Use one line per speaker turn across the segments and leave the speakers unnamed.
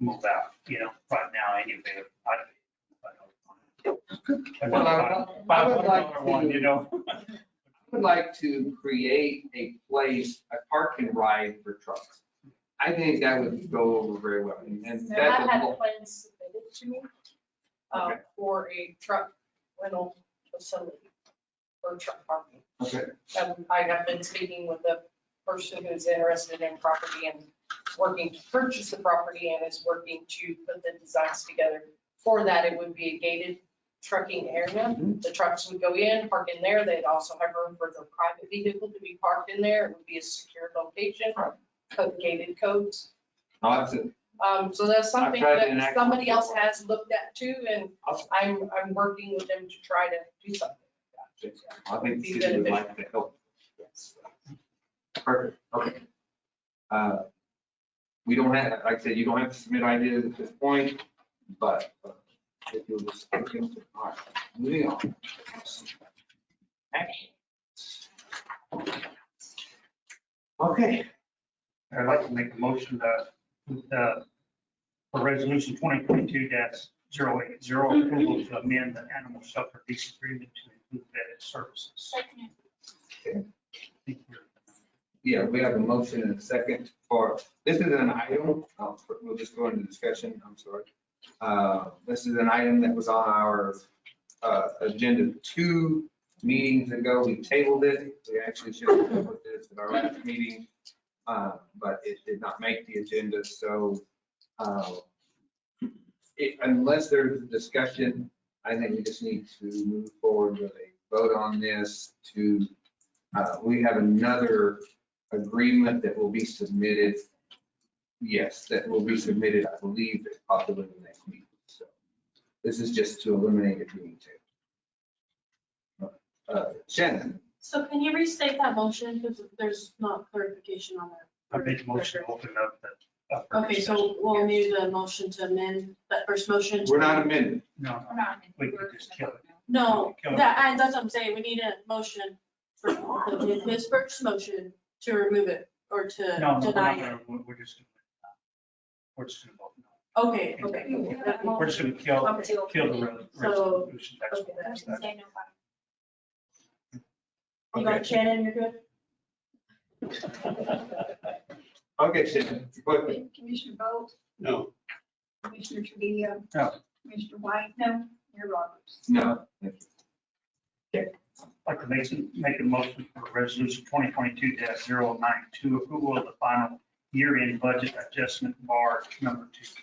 move out, you know, right now anyway. I- I don't
Well, I
want
would-
it.
I would like
Five one, you
to,
know?
I would like to create a place, a park and ride for trucks. I think that would go over very well, and that's.
And I
a
had
whole-
plans submitted to me uh,
Okay.
for a truck rental facility for truck parking.
Okay,
Um, I have been speaking with the person who's interested in property and working to purchase the property and is working to put the designs together. For that, it would be a gated trucking area.
Mhm.
The trucks would go in, park in there. They'd also have room for their private vehicle to be parked in there. It would be a secure location, code- gated codes.
I'll have to,
Um, so that's
I've
something
tried to
that
enact-
somebody else has looked at too, and
Awesome.
I'm, I'm working with them to try to do something. like
I think the city would like to help.
that. Yes.
Perfect, okay. Uh, We don't have, like I said, you don't have to submit ideas at this point, but uh, if you'll just. all right, Moving on. Action. Okay,
I'd like to make a motion that, uh, for resolution twenty twenty-two 80 approval to amend the animal shelter lease agreement to include vetted services.
Second.
Thank you.
yeah, we have a motion and a second for, this is an item, uh, we'll just go into discussion, I'm sorry. Uh, This is an item that was on our uh, agenda two meetings ago. We tabled it. We actually should have dealt with this at our last meeting, uh, but it did not make the agenda, so uh, it- unless there's discussion, I think we just need to move forward with a vote on this to, uh, we have another agreement that will be submitted. Yes, that will be submitted, I believe, possibly the next meeting. So This is just to eliminate it being tabled. Uh, Shannon,
So can you restate that motion because there's not clarification on
I
that?
make a motion to open up the. up for
Okay,
discussion.
so we'll need a motion to amend that first motion. to-
we're not amending.
No,
We're not.
We could just kill it.
No,
Kill it.
that, I- that's what I'm saying. We need a motion for the- his first motion to remove it or
no,
to
no, we're not
deny it.
gonna- we're we're just. gonna- We're just gonna vote no.
Okay, okay.
We're just gonna kill,
Okay,
kill the re-
So-
resolution. That's what we're doing.
Say no.
You got it,
Okay,
Shannon, you're good?
okay, Shannon, but
Commissioner Bolt,
No,
Commissioner Trivio.
No.
Commissioner White. No. Mayor Roberts.
no.
I'd like to make, make a motion for resolution twenty twenty-two 92 approval of the final year-end budget adjustment bar number two.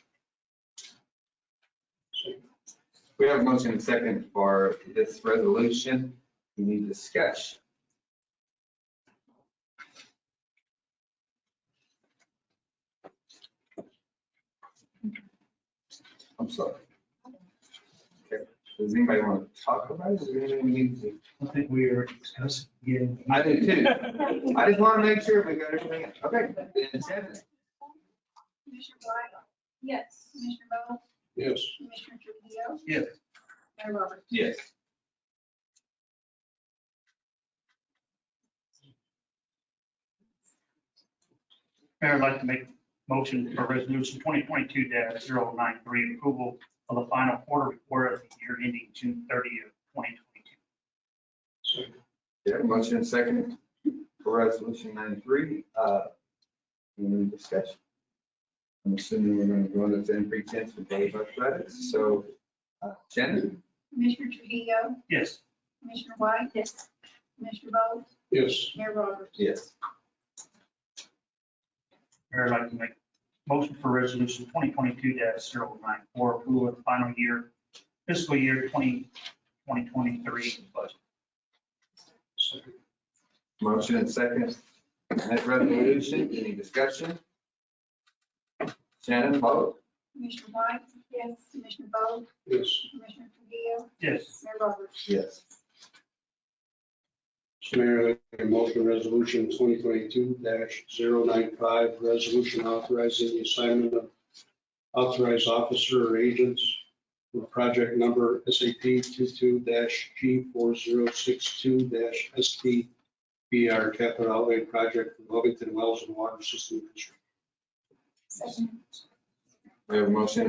We have a motion and second for this resolution. We need discussion. I'm sorry. Okay, Does anybody want to talk about it? Is there anything we need to?
I think we are discussing again.
I do too.
Okay.
I just want to make sure we got everything. Okay. then Shannon.
Commissioner White. Yes. Commissioner Bolt,
yes.
Commissioner Trivio.
Yes.
Mayor Roberts.
Yes.
Mayor, I'd like to make a motion for resolution twenty twenty-two 93 approval of the final quarter report of the year ending June thirtieth, twenty twenty-two.
Yeah, motion and second for resolution ninety-three. Uh, Any discussion? I'm assuming we're going to go into ten pretense with Dave athletics, so uh, Shannon?
Commissioner Trivio,
Yes,
Commissioner White. Yes. Commissioner Bolt,
Yes,
Mayor Roberts.
Yes.
Mayor, I'd like to make a motion for resolution twenty twenty-two 94 approval of the final year, fiscal year 20 2023 budget.
Motion and second. on That resolution, any discussion? Shannon, vote?
Commissioner White. Yes. Commissioner Bolt,
yes.
Commissioner Trivio,
Yes.
Mayor Roberts.
Yes.
So Mayor, I make a motion resolution twenty twenty-two 95 resolution authorizing the assignment of authorized officer or agents for project number SAP 22 G four zero six two dash SPBR capital outlay project for Lovington Wells and Water System Construction.
Second.
We have a motion